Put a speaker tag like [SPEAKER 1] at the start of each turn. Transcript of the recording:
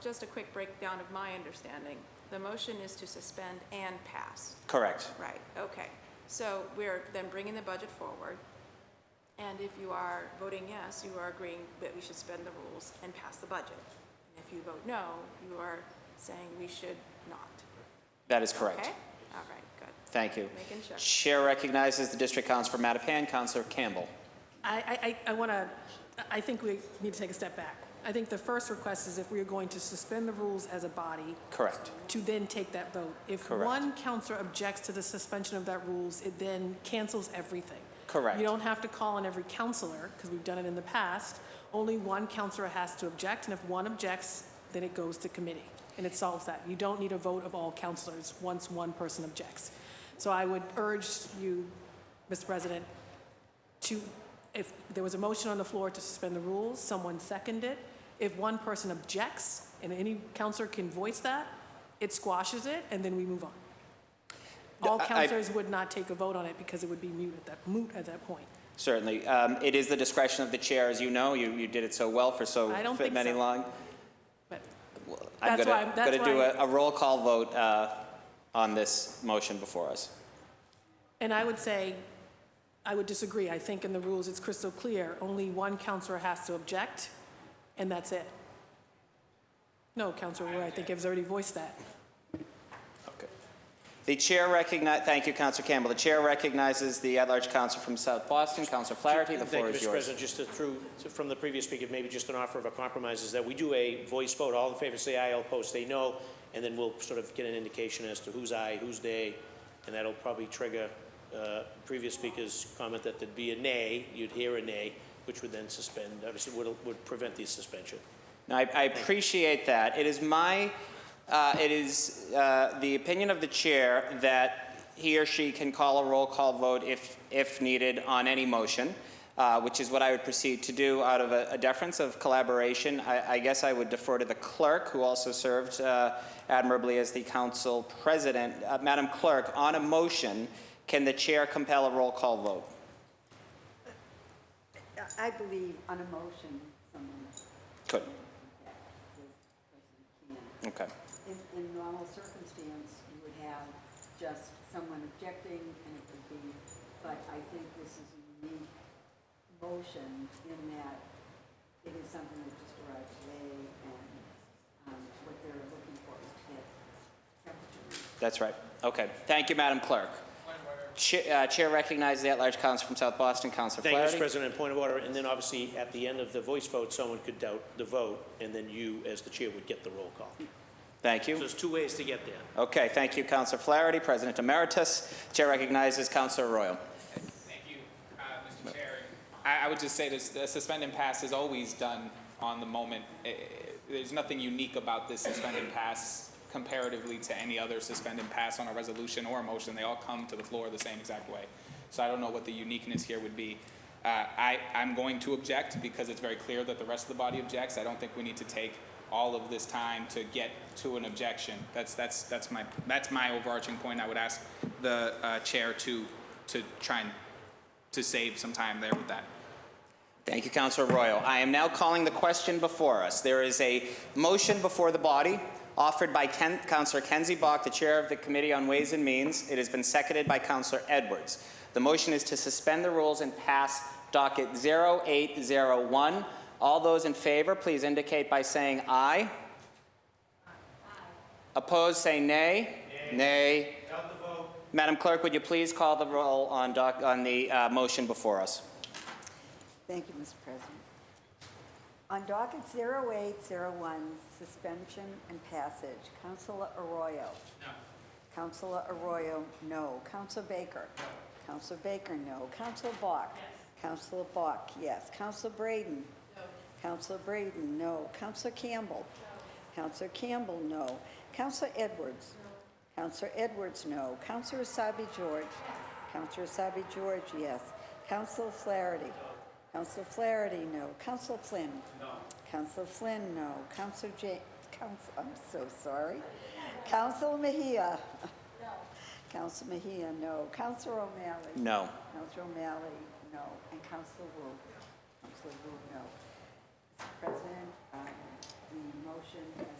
[SPEAKER 1] just a quick breakdown of my understanding. The motion is to suspend and pass.
[SPEAKER 2] Correct.
[SPEAKER 1] Right, okay. So we're then bringing the budget forward. And if you are voting yes, you are agreeing that we should spend the rules and pass the budget. And if you vote no, you are saying we should not.
[SPEAKER 2] That is correct.
[SPEAKER 1] Okay? All right, good.
[SPEAKER 2] Thank you.
[SPEAKER 1] Making sure.
[SPEAKER 2] Chair recognizes the district council for Mattapan, Counselor Campbell.
[SPEAKER 3] I, I, I want to, I think we need to take a step back. I think the first request is if we are going to suspend the rules as a body
[SPEAKER 2] Correct.
[SPEAKER 3] to then take that vote. If
[SPEAKER 2] Correct.
[SPEAKER 3] one counselor objects to the suspension of that rules, it then cancels everything.
[SPEAKER 2] Correct.
[SPEAKER 3] You don't have to call on every counselor, because we've done it in the past. Only one counselor has to object, and if one objects, then it goes to committee, and it solves that. You don't need a vote of all counselors once one person objects. So I would urge you, Mr. President, to, if there was a motion on the floor to suspend the rules, someone seconded it. If one person objects, and any counselor can voice that, it squashes it, and then we move on. All
[SPEAKER 2] I- I-
[SPEAKER 3] counselors would not take a vote on it because it would be moot at that, moot at that point.
[SPEAKER 2] Certainly. Um, It is the discretion of the chair, as you know. You you did it so well for so
[SPEAKER 3] I don't
[SPEAKER 2] fit
[SPEAKER 3] think
[SPEAKER 2] many
[SPEAKER 3] so.
[SPEAKER 2] long.
[SPEAKER 3] But
[SPEAKER 2] I'm
[SPEAKER 3] That's
[SPEAKER 2] gonna-
[SPEAKER 3] why I'm- that's
[SPEAKER 2] gonna do
[SPEAKER 3] why-
[SPEAKER 2] a a roll call vote uh, on this motion before us.
[SPEAKER 3] And I would say, I would disagree. I think in the rules, it's crystal clear, only one counselor has to object, and that's it. No, Counselor Ware, I think has already voiced that.
[SPEAKER 2] Okay. The chair recognize, thank you, Counselor Campbell. The chair recognizes the at-large counsel from South Boston, Counselor Flaherty. The floor
[SPEAKER 4] Thank
[SPEAKER 2] is
[SPEAKER 4] you, Mr.
[SPEAKER 2] yours.
[SPEAKER 4] President. Just to- through, to- from the previous speaker, maybe just an offer of a compromise is that we do a voice vote. All in favor say aye, all opposed say no, and then we'll sort of get an indication as to who's aye, who's nay, and that'll probably trigger uh, previous speaker's comment that there'd be a nay, you'd hear a nay, which would then suspend, obviously would, would prevent the suspension.
[SPEAKER 2] Now, I I appreciate that. It is my, uh, it is uh, the opinion of the chair that he or she can call a roll call vote if, if needed on any motion, uh, which is what I would proceed to do out of a a deference of collaboration. I I guess I would defer to the clerk, who also served uh, admirably as the council president. Uh, Madam Clerk, on a motion, can the chair compel a roll call vote?
[SPEAKER 5] I believe on a motion, someone.
[SPEAKER 2] Could.
[SPEAKER 5] that the person
[SPEAKER 2] Okay.
[SPEAKER 5] can. In, in normal circumstance, you would have just someone objecting and it would be, but I think this is a unique motion in that it is something that just arrived today and, um, what they're looking for is to get temperature.
[SPEAKER 2] That's right. Okay. Thank you, Madam Clerk. Cha- uh, Chair recognizes the at-large counsel from South Boston, Counselor
[SPEAKER 4] Thank you, Mr.
[SPEAKER 2] Flaherty.
[SPEAKER 4] President. Point of order, and then obviously at the end of the voice vote, someone could doubt the vote, and then you, as the chair, would get the roll call.
[SPEAKER 2] Thank
[SPEAKER 4] So
[SPEAKER 2] you.
[SPEAKER 4] there's two ways to get there.
[SPEAKER 2] Okay, thank you, Counselor Flaherty, President Emeritus. Chair recognizes Counselor Royal.
[SPEAKER 6] Thank you, uh, Mr. Chair. I I would just say this, the suspend and pass is always done on the moment. Eh, eh, There's nothing unique about this suspend and pass comparatively to any other suspend and pass on a resolution or a motion. They all come to the floor the same exact way. So I don't know what the uniqueness here would be. Uh, I, I'm going to object because it's very clear that the rest of the body objects. I don't think we need to take all of this time to get to an objection. That's, that's, that's my, that's my overarching point. I would ask the uh, chair to, to try and to save some time there with that.
[SPEAKER 2] Thank you, Counselor Royal. I am now calling the question before us. There is a motion before the body offered by Ken- Counselor Kenzie Bach, the Chair of the Committee on Ways and Means. It has been seconded by Counselor Edwards. The motion is to suspend the rules and pass docket 0801. All those in favor, please indicate by saying aye. Opposed, say nay. Nay. Madam Clerk, would you please call the roll on doc- on the uh, motion before us?
[SPEAKER 5] Thank you, Mr. President. On docket 0801, suspension and passage, Councilor Arroyo. No. Councilor Arroyo, no. Councilor Baker. No. Councilor Baker, no. Councilor Bach. Yes. Councilor Bach, yes. Councilor Braden. No. Councilor Braden, no. Councilor Campbell. No. Councilor Campbell, no. Councilor Edwards. No. Councilor Edwards, no. Councilor Asabi George. Councilor Asabi George, yes. Councilor Flaherty. Councilor Flaherty, no. Councilor Flynn? No. Councilor Flynn, no. Councilor Ja, Council, I'm so sorry. Councilor Mejia? No. Councilor Mejia, no. Councilor O'Malley?
[SPEAKER 2] No.
[SPEAKER 5] Councilor O'Malley, no. And Councilor Wu? Councilor Wu, no. Mr. President, um, the motion has